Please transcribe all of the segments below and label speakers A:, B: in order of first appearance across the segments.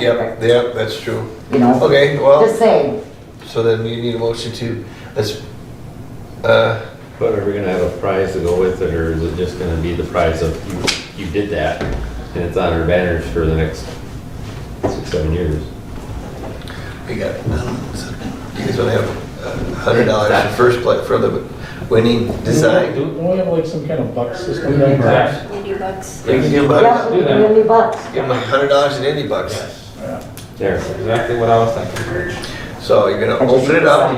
A: Yep, yep, that's true.
B: You know?
A: Okay, well,
B: Just saying,
A: so then you need a motion to, let's, uh,
C: But are we gonna have a prize to go with it, or is it just gonna be the prize of you, you did that? And it's on our banners for the next six, seven years.
A: we got, you guys wanna have a hundred dollars for first place, for the winning design?
D: Don't we have like some kind of buck system down there?
E: You do bucks.
A: We can give them a
B: yeah,
A: hundred,
F: do that.
B: really bucks.
A: give them a hundred dollars and any bucks.
F: Yes,
C: There.
F: that's exactly what I was thinking.
A: So you're gonna open it up,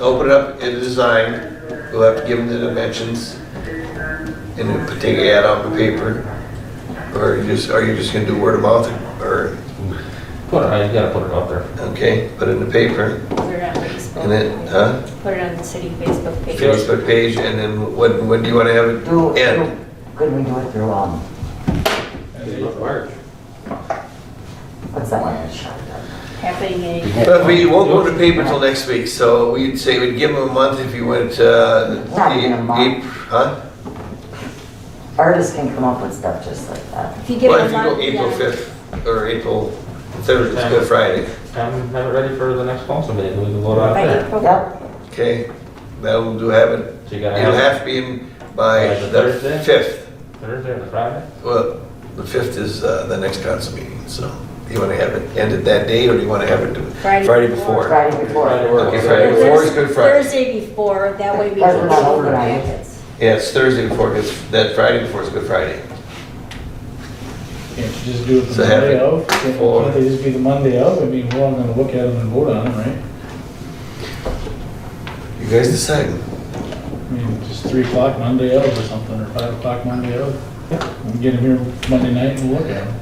A: open it up in design, we'll have to give them the dimensions and then take an ad on the paper. Or you just, are you just gonna do word of mouth or,
F: Put it, you gotta put it out there.
A: okay, put it in the paper
E: Put it on Facebook.
A: and then, huh?
E: Put it on the city Facebook page.
F: Yeah.
A: Facebook page and then when, when do you wanna have
B: Do,
A: it
B: do,
A: end?
B: could we do it through, um,
C: March.
B: what's that one?
E: Happening in.
A: But we won't go to paper till next week, so we'd say we'd give them a month if you went, uh,
B: Not even a month.
A: April, huh?
B: Artists can come up with stuff just like that.
E: If you give
A: Well, if
E: it a
A: you go
E: month.
A: April
E: yeah.
A: fifth or April third, it's Good Friday.
F: And have it ready for the next council meeting, we can vote on
E: By
F: it.
E: April.
B: Yep,
A: Okay, that'll do have it.
F: So you gotta
A: It'll
F: have
A: have to be in by
F: By the
A: the
F: Thursday?
A: fifth.
F: Thursday or Friday?
A: Well, the fifth is uh, the next council meeting, so do you want to have it ended that day or do you want to have it do-
E: Friday
A: Friday
E: before.
A: before?
B: Friday before.
F: Friday works.
A: Okay, Friday
E: Thursday-
A: before is Good Friday.
E: Thursday before, that way we
B: That's
E: can
B: not
E: get over
B: overnight.
E: packets.
A: Yeah, it's Thursday before, it's that Friday before is Good Friday.
D: Can't you just do it
A: So
D: the
A: have
D: Monday
A: it
D: of? Can't
A: for-
D: can't they just be the Monday of? I mean, we're all gonna look at them and vote on them, right?
A: You guys decide.
D: I mean, just three o'clock Monday of or something, or five o'clock Monday of. And Get them here Monday night and look at them.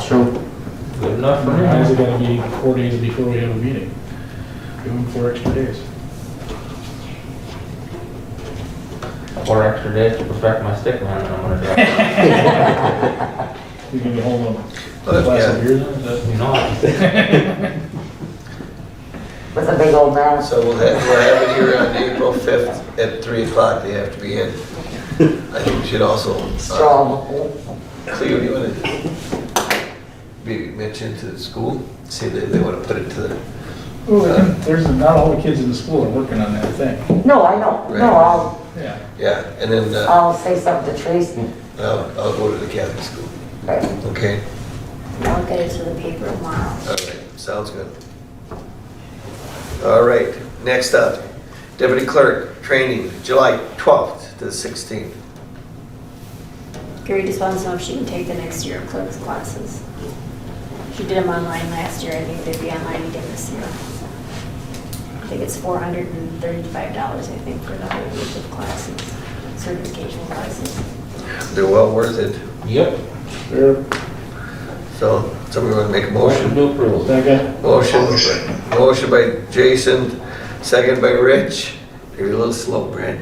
B: True.
F: Good enough for me.
D: Why is it gotta be four days before we have a meeting? Give them four extra days.
F: Four extra days to perfect my stick man, and I'm gonna drop it.
D: You can hold them.
A: Well,
D: Last
A: yeah.
D: year, that,
F: You know,
B: With a big old man.
A: So we'll have, we'll have it here on April fifth at three o'clock. They have to be in. I think we should also. uh,
B: Strong.
A: Cleo, do you want to maybe mention to the school, see if they want to put it to the,
D: Ooh, there's, not all the kids in the school are working on that thing.
B: No, I know,
A: Right.
B: no, I'll,
D: Yeah.
A: yeah, and then uh,
B: I'll say something to Tracy.
A: I'll, I'll go to the Catholic school.
B: Right.
A: Okay,
E: I'll get it to the paper tomorrow.
A: all right, sounds good. All right, next up, deputy clerk, training, July 12th to 16th.
E: Gary just wants to know if she can take the next year of clerk's classes. She did them online last year, I think they'd be online again this year. I think it's four hundred and thirty-five dollars, I think, for the whole week of classes, certification classes.
A: They're well worth it,
F: yep,
D: They're,
A: so somebody want to make a motion?
F: motion to approve.
D: second,
A: Motion, motion by Jason, second by Rich. You're a little slow, Brad.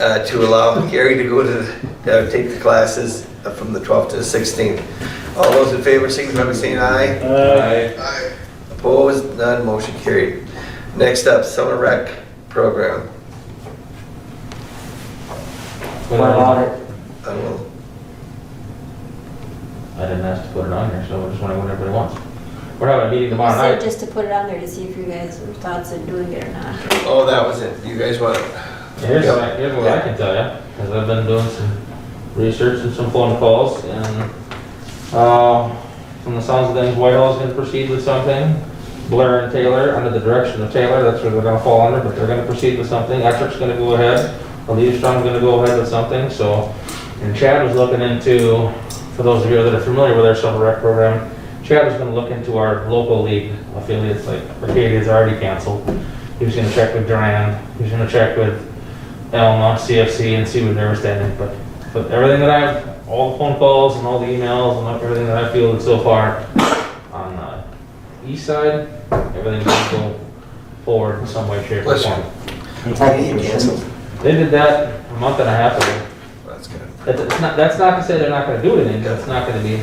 A: Uh, to allow Gary to go to, the- uh, take the classes uh, from the 12th to the 16th. All those in favor, signify by saying aye.
D: uh,
A: Opposed, none, motion carried. Next up, summer rec program.
B: What
F: Put it on.
B: about it?
A: I don't know.
F: I didn't ask to put it on here, so I just wanna what everybody wants. We're having a meeting tomorrow
E: I said
F: night.
E: just to put it on there to see if you guys were thoughts of doing it or not.
A: Oh, that was it. You guys want it?
F: Here's what I, here's what I can tell you, because I've been doing some research and some phone calls, and, uh, from the sounds of things, Whitehall's gonna proceed with something. Blair and Taylor, under the direction of Taylor, that's where they're gonna fall under, but they're gonna proceed with something. Ettrick's gonna go ahead, Leavstrom's gonna go ahead with something, so. And Chad was looking into, for those of you that are familiar with our summer rec program, Chad was gonna look into our local league affiliates, like Arcadia's already canceled. He was gonna check with Durand, he was gonna check with Elma, CFC, and see what they were standing, but, but everything that I've, all the phone calls and all the emails and everything that I fielded so far on the east side, everything's gonna go forward in some way, shape, or
A: Bless you.
F: form.
B: I think we should.
F: They did that a month and a half ago.
A: That's good.
F: That's it's not, that's not to say they're not gonna do anything, but it's not gonna be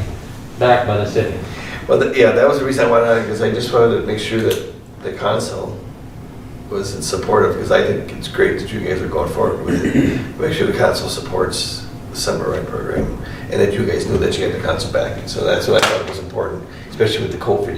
F: backed by the city.
A: Well, th- yeah, that was the reason I wanted on because I just wanted to make sure that the council was in support of, because I think it's great that you guys are going forward with it. Make sure the council supports the summer rec program, and that you guys knew that you had the council backing, so that's what I thought was important. especially with the COVID